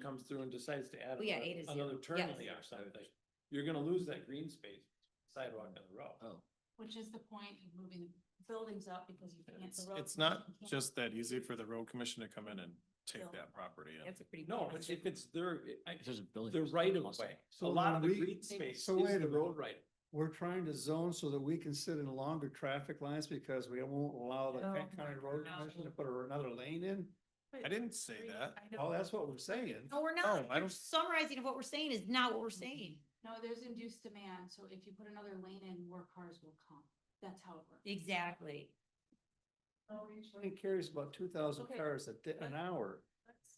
comes through and decides to add Oh, yeah, another- eight is zero. another turn Yes. lane or something, you're gonna lose that green space sidewalk on the road. Oh. Which is the point of moving buildings up because you can't. It's, the road it's not commission can't- just that easy for the road commission to come in and take No. that property in. That's a pretty. No, but if it's their, I, There's a building. the right of way, a lot of the when we- green space is So wait a the road minute. right. We're trying to zone so that we can sit in longer traffic lines because we won't allow the No. Kent County Road Commission to put another lane in. I didn't say that. I know- Oh, that's what we're saying. No, we're Oh, not. I Your don't- Summarizing of what we're saying is not what we're saying. No, there's induced demand, so if you put another lane in, more cars will come. That's how it works. Exactly. It carries about two thousand Okay. cars a day, an hour.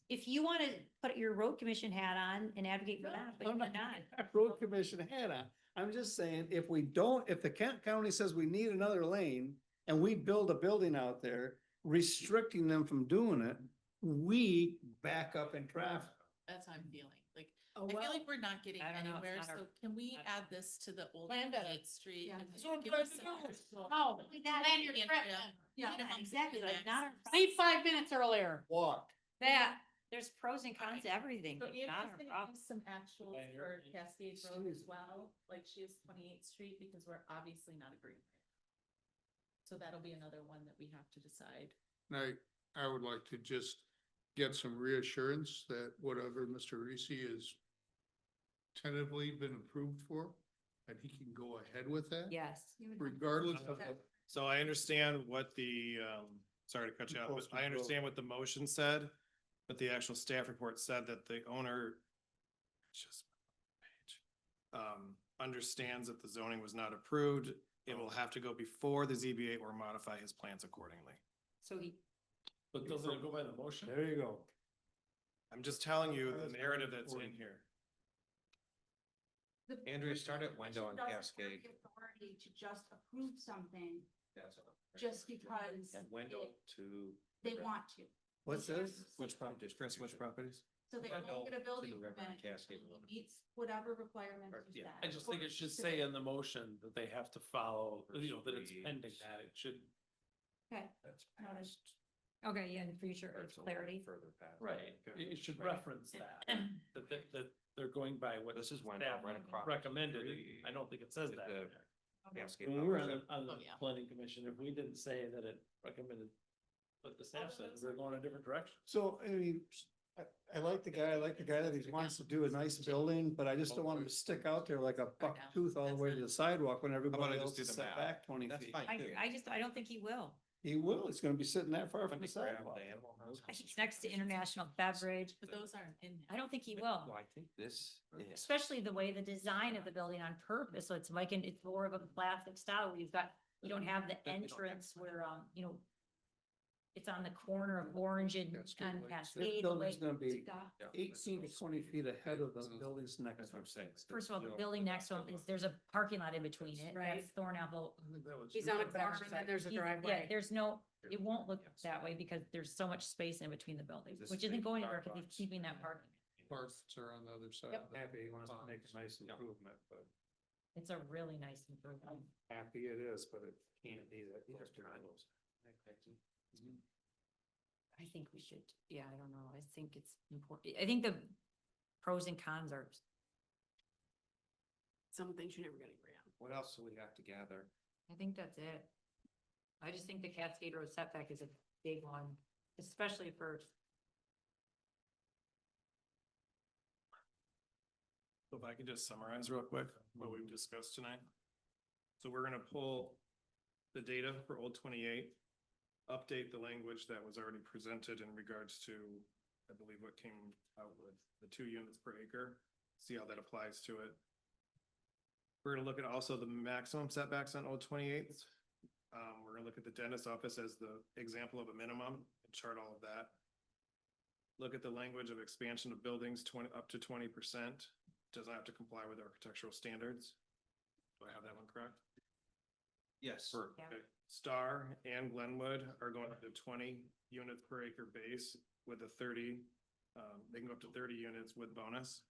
If you want to put your road commission hat on and advocate for No, that, but I'm you're not- not. Road Commission had on. I'm just saying, if we don't, if the Kent County says we need another lane and we build a building out there, restricting them from doing it, we back up in traffic. That's how I'm feeling, like, Oh, I feel well, like we're not getting I don't know, it's anywhere, not our- so can we I don't add this to the old Plan better. Kate Street? Yeah. and That's what I'm give trying us to some do. No, actual- Oh, That- Plan your trip. Yeah, Minimum exactly, like not. our access. problem. leave five minutes earlier. Walk. That, there's pros and cons to everything. So It's Anne not is our gonna problem. have some actuals Plan your- for Cascade Road Excuse as me. well, like she has twenty-eighth street, because we're obviously not agreeing. So that'll be another one that we have to decide. And I, I would like to just get some reassurance that whatever Mr. Risi has tentatively been approved for, that he can go ahead with that. Yes. you would have- Regardless of, Okay. So I understand what the, um, sorry to cut you off, Impulse but I control. understand what the motion said, but the actual staff report said that the owner just um, understands that the zoning was not approved. It will have to go before the ZBA or modify his plans accordingly. So he, But doesn't it go by the motion? There you go. I'm just telling you the narrative that's in here. the Andrea, board start at window on doesn't have Cascade. the Authority to just approve something just because it- to. they want to. What's this? Which properties? Chris, which properties? So they Window won't get a to building the river permit. Cascade until Road. it Meets whatever requirements. Or- you yeah. set. I just think it should say in the motion that they have to follow, you know, that it's pending that, it should. Okay. okay, yeah, in the future, it's clarity. Right. It, it should reference that, that, that, that they're going by what. This is Wendell, staff right across Recommended, the- I don't think it says the- that. in there. Cascade When we were on Road. the, on the Oh, yeah. planning commission, if we didn't say that it recommended, what the Oh, staff said, we're going a different direction. So, I mean, I, I like the guy, I like the guy that he wants to do a nice building, but I just don't want him to stick out there like a buck tooth all the way to the sidewalk when I everybody just else do is the set map? back twenty That's feet. fine. I, too. I just, I don't think he will. He will, it's gonna be sitting that far from the Grab sidewalk. the animal house. He's next to international beverage. But those aren't in. I there. don't think he will. Well, I think this is. especially the way the design of the building on purpose, so it's like, an it's more of a classic style, where you've got, you don't have the don't have- entrance where, um, you know, it's on the corner of Orange and, That's good, and like, This Cascade, the building's way- gonna be Stop. yeah, that's eighteen to close. twenty feet ahead of the buildings next That's to what I'm it. saying. first of all, You the know, building next to him is, there's a parking lot in between it, that's Right. Thornapple. He's on a corner and then there's a He- Yeah, driveway. there's no, it won't look Yes. that way because there's so much space in between the buildings, This which is isn't big going anywhere, because Starbucks. he's keeping that parking. parts are on the other side. Yep. of the- Happy, he wants to make a nice improvement, but It's a really nice improvement. happy it is, but it can't be that. close to the roads. I think we should, yeah, I don't know, I think it's important, I think the pros and cons are Some things you're never gonna agree on. What else do we have to gather? I think that's it. I just think the Cascade Road setback is a big one, especially for, So If I could just summarize real quick what we've discussed tonight. So we're gonna pull the data for Old Twenty-Eight, update the language that was already presented in regards to, I believe what came out with the two units per acre, see how that applies to it. We're gonna look at also the maximum setbacks on Old Twenty-Eight. Um, we're gonna look at the dentist office as the example of a minimum and chart all of that. Look at the language of expansion of buildings twenty, up to twenty percent doesn't have to comply with architectural standards. Do I have that one correct? Yes. Yeah. Okay. Star and Glenwood are going up to twenty units per acre base with a thirty, um, they can go up to thirty units with bonus.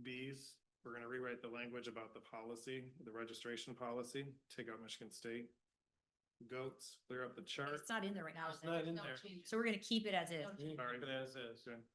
Bs, we're gonna rewrite the language about the policy, the registration policy, take out Michigan State. Goats, clear up the chart. it's not in there right now. It's not in No there. changes. So we're gonna keep it as is. Sorry, Sorry. but uh, as is.